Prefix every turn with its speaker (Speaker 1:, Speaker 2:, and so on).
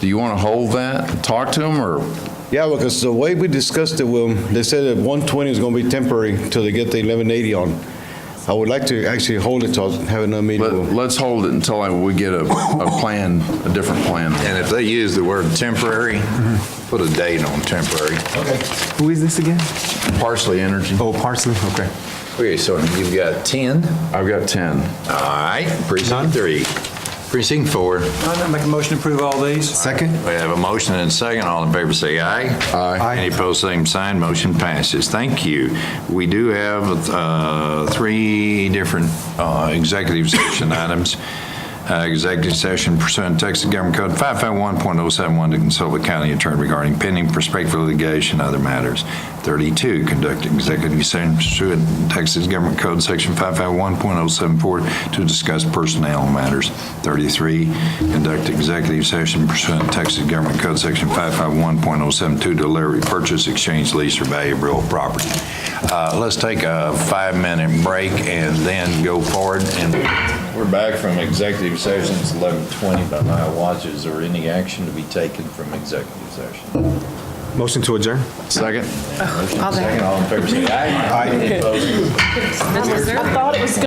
Speaker 1: Do you want to hold that, and talk to them, or?
Speaker 2: Yeah, because the way we discussed it, Will, they said that 120 is going to be temporary until they get the 1180 on. I would like to actually hold it till, have another meeting.
Speaker 1: Let-
Speaker 2: Will.
Speaker 1: Let's hold it until I- we get a, a plan, a different plan.
Speaker 3: And if they use the word temporary, put a date on temporary.
Speaker 4: Who is this again?
Speaker 1: Parsley Energy.
Speaker 4: Oh, Parsley, okay.
Speaker 3: Okay, so you've got 10. All
Speaker 1: I've got 10.
Speaker 3: right, precinct three. Precinct four.
Speaker 5: I'm gonna make a motion to approve all these.
Speaker 4: Second?
Speaker 3: We have a motion and a second. All in favor, say aye.
Speaker 4: Aye.
Speaker 3: Any opposed, same sign. Motion passes. Thank you. We do have uh, three different uh, executive session items. Uh, Executive session pursuant to Texas Government Code 551.071 to consult with county attorney regarding pending prospective litigation, and other matters. 32, conduct executive session pursuant to Texas Government Code Section 551.074 to discuss personnel matters. 33, conduct executive session pursuant to Texas Government Code Section 551.072 to deliver, purchase, exchange, lease, or value of real property. Uh, Let's take a five-minute break and then go forward. And We're back from executive session. It's 11:20 by my watch. Is there any action to be taken from executive session?
Speaker 4: Motion to adjourn?
Speaker 3: Second, all in favor, say aye. Aye.
Speaker 6: I thought it was